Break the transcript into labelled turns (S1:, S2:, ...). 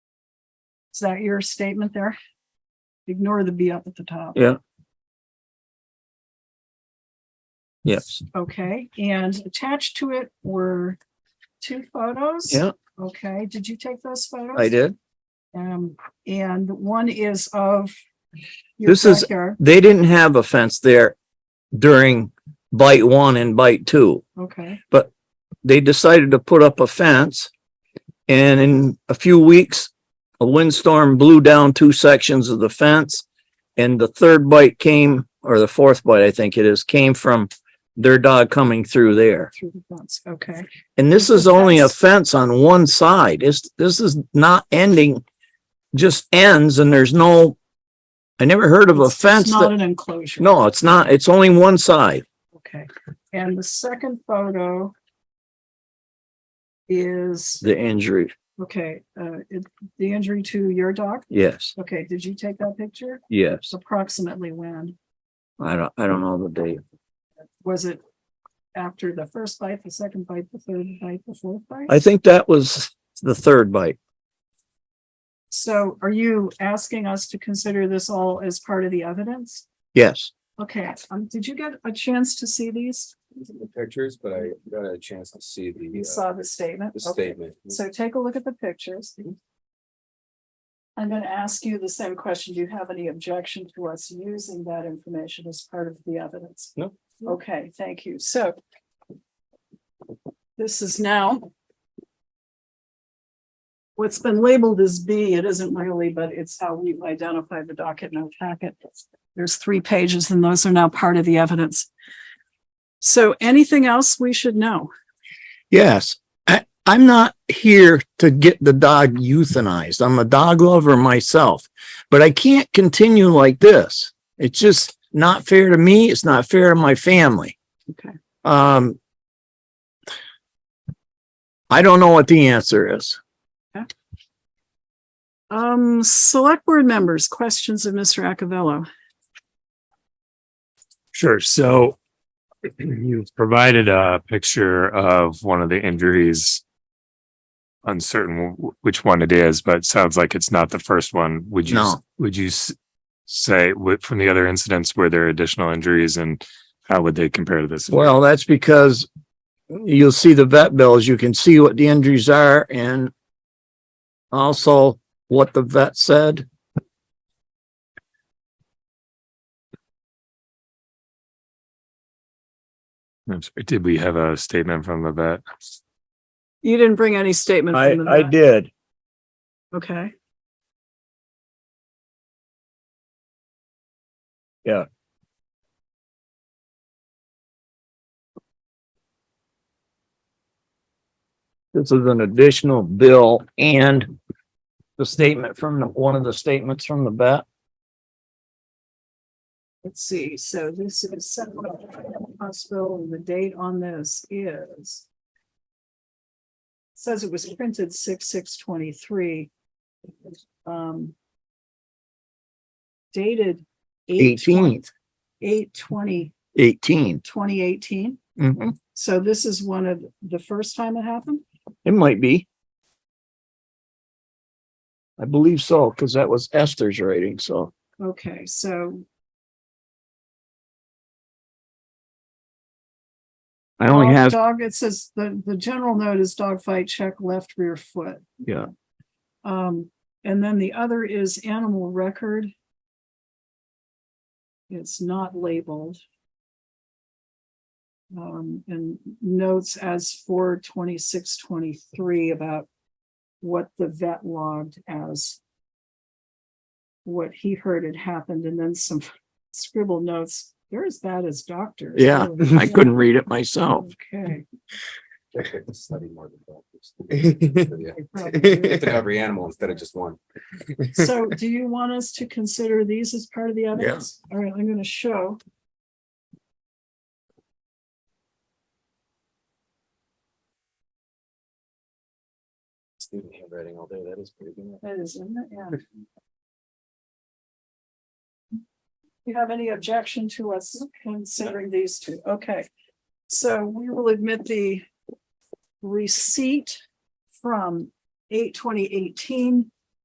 S1: Is that your statement there? Ignore the B up at the top.
S2: Yeah. Yes,
S1: Okay, and attached to it were two photos.
S2: yeah,
S1: Okay, did you take those photos?
S2: I did.
S1: Um, and one is of your
S2: This is-
S1: backyard.
S2: They didn't have a fence there during bite one and bite two.
S1: Okay,
S2: They decided to put up a fence. And in a few weeks, a windstorm blew down two sections of the fence. And the third bite came, or the fourth bite, I think it is, came from their dog coming through there.
S1: through the fence, okay.
S2: And this is only a fence on one side. It's, this is not ending, just ends and there's no, I never heard of a
S1: It's- it's
S2: fence
S1: Not
S2: that,
S1: an enclosure.
S2: no, it's not, it's only one side.
S1: Okay, and the second photo is,
S2: The injury,
S1: okay, uh, it- the injury to your dog.
S2: yes,
S1: Okay, did you take that picture?
S2: yes.
S1: Approximately when?
S2: I don't, I don't know the date.
S1: Was it after the first bite, the second bite, the third bite, the fourth bite?
S2: I think that was the third bite.
S1: So are you asking us to consider this all as part of the evidence?
S2: Yes,
S1: Okay, um, did you get a chance to see these?
S3: the pictures, but I got a chance to see
S1: You
S3: the, uh,
S1: saw the statement?
S3: the
S1: Okay.
S3: statement. Mhm.
S1: So take a look at the pictures. I'm gonna ask you the same question. Do you have any objection to us using that information as part of the evidence?
S3: No.
S1: Okay, thank you. So this is now what's been labeled as B, it isn't really, but it's how we identify the docket in our packet. There's three pages and those are now part of the evidence. So anything else we should know?
S2: yes. I, I'm not here to get the dog euthanized. I'm a dog lover myself. But I can't continue like this. It's just not fair to me. It's not fair to my family.
S1: Okay.
S2: Um. I don't know what the answer is.
S1: Um, select board members, questions of Mr. Acavelo.
S4: Sure. So you've provided a picture of one of the injuries. Uncertain wh- which one it is, but sounds like it's not the first one. Would you,
S2: No.
S4: would you s- say what from the other incidents, were there additional injuries and how would they compare to this?
S2: Well, that's because you'll see the vet bills. You can see what the injuries are and also what the vet said.
S4: I'm sorry, Did we have a statement from the vet?
S1: You didn't bring any statement.
S2: I,
S1: from the
S2: I
S1: back.
S2: did.
S1: Okay.
S2: Yeah. This is an additional bill and the statement from the- one of the statements from the vet.
S1: Let's see. So this is Central Hospital and the date on this is says it was printed six, six, twenty-three. Um, dated eight,
S2: Eighteenth,
S1: eight, twenty,
S2: eighteen.
S1: twenty eighteen.
S2: Mhm.
S1: So this is one of the first time it happened?
S2: It might be. I believe so, because that was Esther's rating, so.
S1: Okay, so
S2: I only
S1: Dog-
S2: have,
S1: Dog, it says, the, the general note is dog fight, check left rear foot.
S2: yeah,
S1: Um, and then the other is animal record. It's not labeled. Um, and notes as for twenty-six, twenty-three about what the vet logged as what he heard had happened, and then some scribble notes. They're as bad as doctors.
S2: yeah,
S1: really.
S2: I couldn't read it myself.
S1: Okay.
S3: Check it, Study more than practice. Yeah.
S1: I probably
S3: Look
S1: did.
S3: at Every animal instead of just one.
S1: So do you want us to consider these as part of the evidence? All right, I'm gonna show.
S3: Student handwriting all day, that is pretty good.
S1: That is, isn't it? Yeah. You have any objection to us considering these two? Okay. So we will admit the receipt from eight twenty eighteen